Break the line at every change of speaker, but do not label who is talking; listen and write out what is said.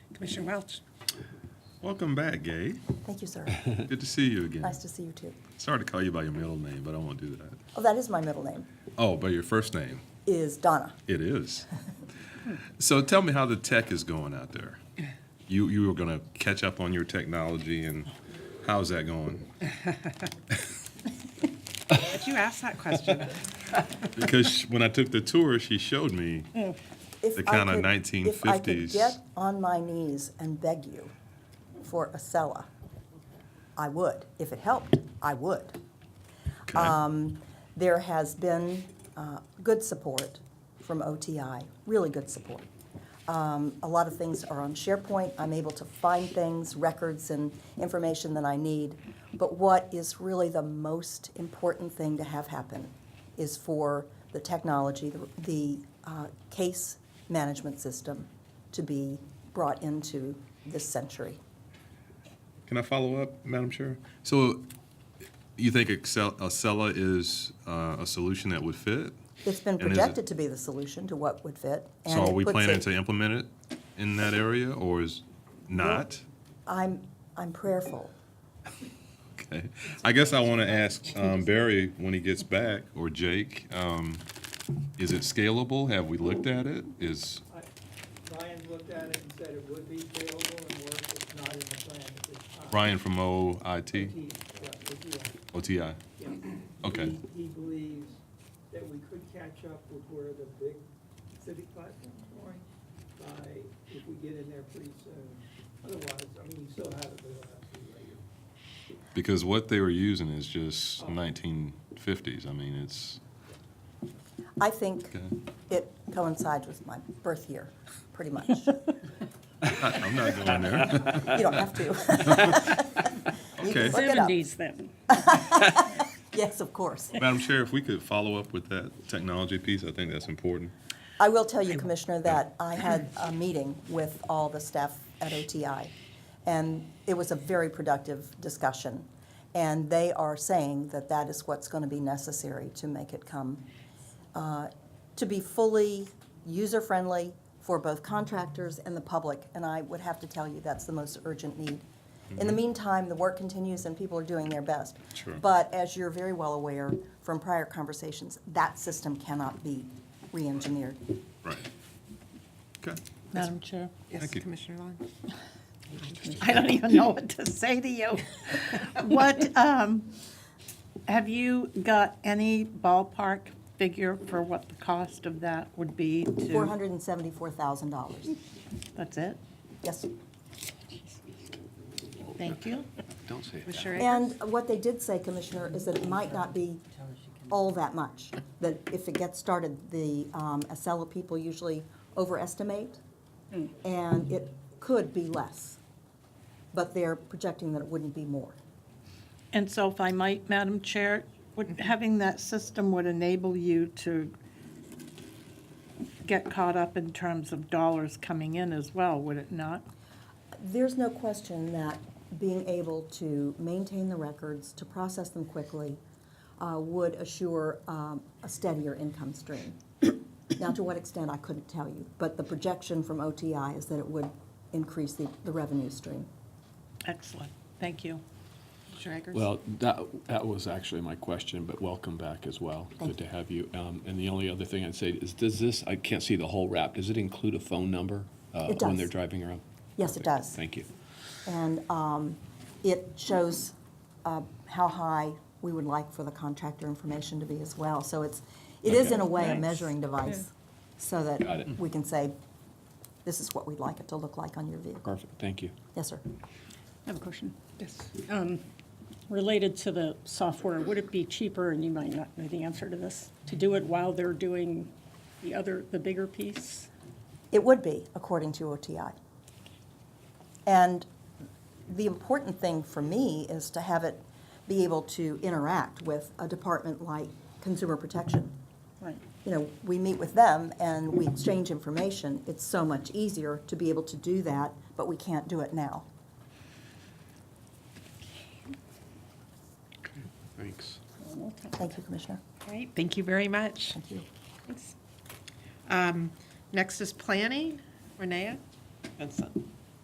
Commissioner Welch?
Welcome back, Gabe.
Thank you, sir.
Good to see you again.
Nice to see you, too.
Sorry to call you by your middle name, but I won't do that.
Oh, that is my middle name,
Oh, by your first name.
is Donna.
It is. So tell me how the tech is going out there. You you were going to catch up on your technology and how's that going?
Did you ask that question?
Because she- when I took the tour, she showed me.
If
The
I
kinda
could- If I could
1950s.
get on my knees and beg you for a Acela, I would. If it helped, I would. Um,
Okay.
There has been uh, good support from OTI, really good support. Um, A lot of things are on SharePoint. I'm able to find things, records, and information that I need. But what is really the most important thing to have happen is for the technology, the- the uh, case management system to be brought into this century.
Can I follow up, Madam Chair? So you think Excel, Acela is uh, a solution that would fit?
It's been
And is it-
projected to be the solution to what would fit. and
So are
it
we
puts
planning
it-
to implement it in that area or is not?
I'm, I'm prayerful.
Okay. I guess I want to ask um, Barry when he gets back, or Jake, um, is it scalable? Have we looked at it? Is,
Ryan looked at it and said it would be scalable and work, it's not in the plan at this time.
Ryan from OIT,
He- yeah, he-
OTI?
yeah.
Okay.
He- He believes that we could catch up with where the big civic platform's going by, if we get in there pretty soon. Otherwise, I mean, you still have it, but it'll have to be later.
Because what they were using is just nineteen fifties. I mean, it's,
I think
okay.
It coincides with my birth year, pretty much.
I'm not going there.
You don't have to. You
Okay.
can look it up.
Seventies then.
Yes, of course.
Madam Chair, if we could follow up with that technology piece, I think that's important.
I will tell you, Commissioner, that I had a meeting with all the staff at OTI, and it was a very productive discussion. And they are saying that that is what's going to be necessary to make it come, uh, to be fully user-friendly for both contractors and the public. And I would have to tell you, that's the most urgent need. In the meantime, the work continues and people are doing their best.
Sure.
But as you're very well aware from prior conversations, that system cannot be re-engineered.
Right. Okay.
Madam Chair.
Yes,
Thank you.
Commissioner Long?
I don't even know what to say to you. What, um, have you got any ballpark figure for what the cost of that would be to?
$474,000.
That's it?
Yes.
Thank you.
Don't say it.
Commissioner Akers?
And what they did say, Commissioner, is that it might not be all that much. That if it gets started, the um, Acela people usually overestimate, and it could be less. But they're projecting that it wouldn't be more.
And so if I might, Madam Chair, would, having that system would enable you to get caught up in terms of dollars coming in as well, would it not?
There's no question that being able to maintain the records, to process them quickly, uh, would assure um, a steadier income stream. Now, to what extent, I couldn't tell you, but the projection from OTI is that it would increase the the revenue stream.
Excellent. Thank you.
Commissioner Akers?
Well, that, that was actually my question, but welcome back as well. Good to have you. Um, And the only other thing I'd say is, does this, I can't see the whole wrap, does it include a phone number? uh,
It
When they're
does.
driving around?
Yes, it
Perfect.
does.
Thank you.
And um, it shows uh, how high we would like for the contractor information to be as well. So it's, it is in a way a
Nice.
measuring device, so
Got
that
it.
we can say, this is what we'd like it to look like on your vehicle.
Perfect, thank you.
Yes, sir.
I have a question.
Yes.
Um, Related to the software, would it be cheaper, and you might not know the answer to this, to do it while they're doing the other, the bigger piece?
It would be, according to OTI. And the important thing for me is to have it be able to interact with a department like Consumer Protection.
Right.
you know, we meet with them and we exchange information, it's so much easier to be able to do that, but we can't do it now.
Thanks.
Thank you, Commissioner.
All right, thank you very much.
Thank you.
Um, Next is planning, Renee? Vincent.